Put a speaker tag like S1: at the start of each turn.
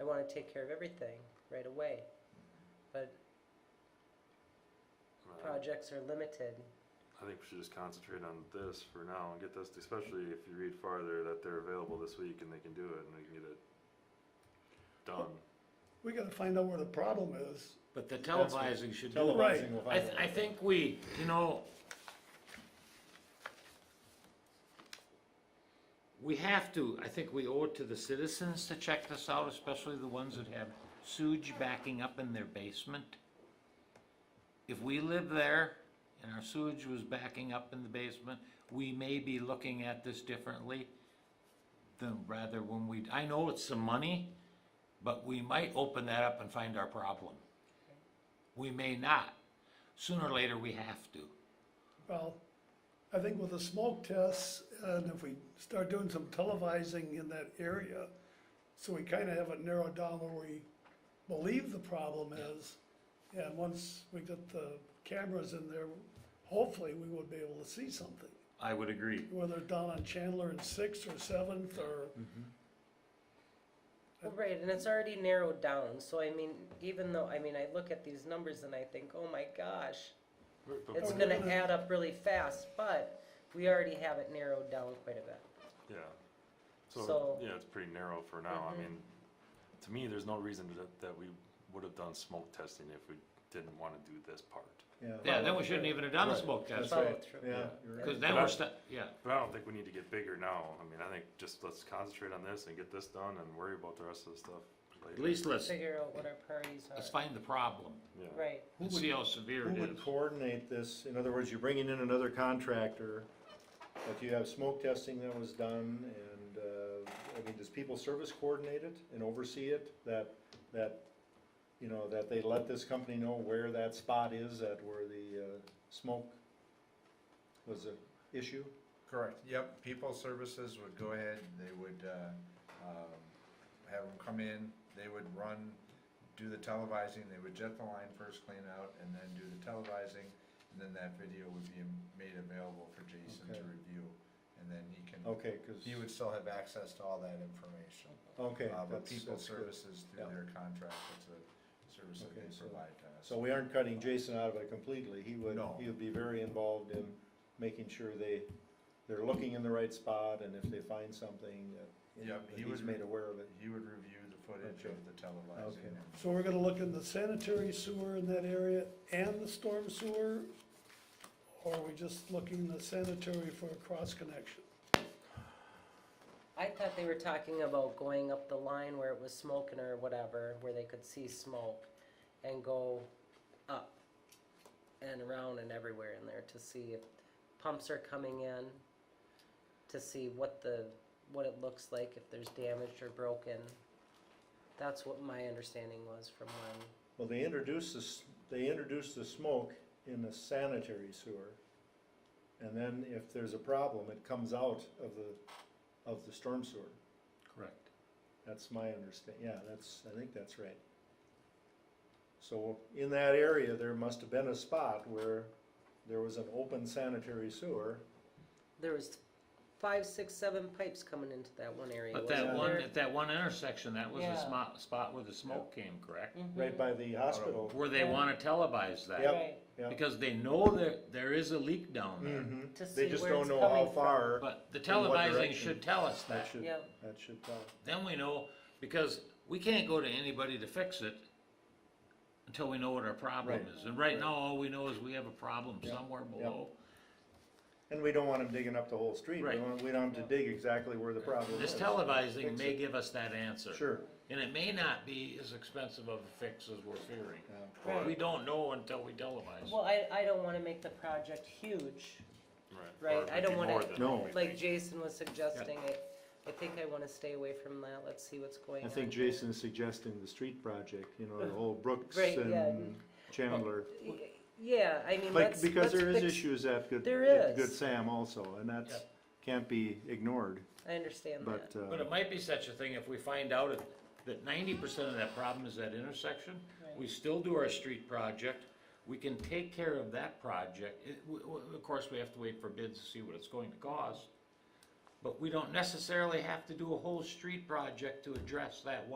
S1: I want to take care of everything right away. But
S2: Well, I-
S1: projects are limited.
S2: I think we should just concentrate on this for now and get this, especially if you read farther that they're available this week and they can do it and we can get it done.
S3: We gotta find out where the problem is.
S4: But the
S5: That's what-
S4: televising should be.
S3: Right.
S5: Televising will
S4: I, th- I think we, you know, we have to, I think we owe it to the citizens to check this out, especially the ones that have sewage backing up in their basement. If we live there and our sewage was backing up in the basement, we may be looking at this differently than rather when we, I know it's some money, but we might open that up and find our problem. We may not. Sooner or later, we have to.
S3: Well, I think with the smoke tests, and if we start doing some televising in that area, so we kinda have it narrowed down where we believe the problem is, and once we get the cameras in there, hopefully we would be able to see something.
S4: I would agree.
S3: Whether down on Chandler and Sixth or Seventh or,
S1: Well, right, and it's already narrowed down. So I mean, even though I mean, I look at these numbers and I think, oh my gosh,
S2: But- but-
S1: it's
S3: Oh,
S1: going to
S3: really?
S1: add up really fast. But we already have it narrowed down quite a bit.
S2: Yeah. So,
S1: So-
S2: yeah, it's pretty narrow for now. I
S1: Mhm.
S2: mean, to me, there's no reason that, that we would have done smoke testing if we didn't wanna do this part.
S4: Yeah, then we shouldn't even have done the
S5: Right.
S4: smoke
S5: That's
S4: test,
S1: Follow
S5: right,
S1: through.
S5: yeah. you're right.
S4: because then we're stuck, yeah.
S2: But I don't think we need to get bigger now. I mean, I think just let's concentrate on this and get this done and worry about the rest of the stuff
S4: At
S2: later.
S4: least let's,
S1: Figure out what our priorities
S4: let's
S1: are.
S4: find the problem
S2: Yeah.
S1: Right.
S5: Who
S4: and
S5: would-
S4: see how severe
S5: Who
S4: it
S5: would
S4: is.
S5: coordinate this? In other words, you're bringing in another contractor, but you have smoke testing that was done, and, uh, I mean, does people service coordinate it and oversee it? That, that, you know, that they let this company know where that spot is at where the, uh, smoke was an issue?
S6: Correct, yep, people services would go ahead, they would, uh, um, have them come in, they would run, do the televising, they would jet the line first, clean out, and then do the televising, and then that video would be made available for Jason to
S5: Okay.
S6: review, and then he can,
S5: Okay, cause,
S6: he would still have access to all that information.
S5: okay,
S6: Uh, but
S5: that's,
S6: people
S5: that's good.
S6: services through
S5: Yeah.
S6: their contract, it's a service that
S5: Okay,
S6: they
S5: so-
S6: provide to us.
S5: So we aren't cutting Jason out of it completely, he would,
S6: No.
S5: he would be very involved in making sure they, they're looking in the right spot, and if they find something that, you know,
S6: Yep,
S5: that
S6: he
S5: he's
S6: would-
S5: made aware of it.
S6: He would review the footage
S5: Okay.
S6: of the televising
S5: Okay.
S6: and
S3: so we're gonna look in the sanitary sewer in that area and the storm sewer? Or are we just looking the sanitary for a cross connection?
S1: I thought they were talking about going up the line where it was smoking or whatever, where they could see smoke and go up and around and everywhere in there to see if pumps are coming in, to see what the, what it looks like, if there's damaged or broken. That's what my understanding was from when,
S5: Well, they introduced this, they introduced the smoke in the sanitary sewer, and then if there's a problem, it comes out of the, of the storm sewer.
S4: Correct.
S5: That's my understand, yeah, that's, I think that's right. So in that area, there must have been a spot where there was an open sanitary sewer.
S1: there was five, six, seven pipes coming into that one area,
S4: But
S1: wasn't
S4: that one,
S1: there?
S4: at that one intersection, that was the
S1: Yeah.
S4: spot, spot where the smoke came, correct?
S5: right by the
S4: Mm-hmm.
S5: hospital.
S4: Where they
S1: Yeah.
S4: wanna televise that,
S5: Mm-hmm. Yep.
S1: Right,
S5: Yeah.
S4: because they know that there is a leak down there.
S5: Mhm.
S1: To see
S5: They just
S1: where
S5: don't
S1: it's
S5: know how
S1: coming
S5: far.
S4: But the
S5: In what
S4: televising
S5: direction?
S4: should tell us
S5: That
S4: that.
S5: should,
S1: Yeah.
S5: that should tell.
S4: Then we know, because we can't go to anybody to fix it until we know what our problem
S5: Right.
S4: is. And right now, all we know is we have a problem somewhere below.
S5: And we don't want them digging up the whole street. We
S4: Right.
S5: want, we don't have to dig exactly where the problem is.
S4: This televising
S5: Fix
S4: may
S5: it.
S4: give us that answer.
S5: Sure.
S4: And it may not be as expensive of a fix as we're fearing.
S5: Yeah.
S1: Right.
S4: We don't know until we televise.
S1: Well, I, I don't wanna make the project huge,
S2: Or
S1: Right,
S2: it
S1: I
S2: might
S1: don't
S2: be
S1: wanna-
S2: more than
S5: No.
S2: we
S1: like
S2: think.
S1: Jason was suggesting, I, I think I wanna stay away from that, let's see what's going
S5: I
S1: on.
S5: think Jason is suggesting the street project, you know, the whole Brooks
S1: Right, yeah.
S5: and Chandler.
S1: Yeah, I mean,
S5: Like,
S1: let's,
S5: because
S1: let's
S5: there is
S1: fix-
S5: issues at Good,
S1: There
S5: at Good
S1: is.
S5: Sam also, and that's, can't be ignored,
S1: I understand
S5: but,
S1: that,
S4: But
S5: uh,
S4: it might be such a thing if we find out it- that ninety percent of that problem is that intersection. We still do our street project. We can take care of that project. It- w- w- Of course, we have to wait for bids to see what it's going to cost. But we don't necessarily have to do a whole street project to address that one.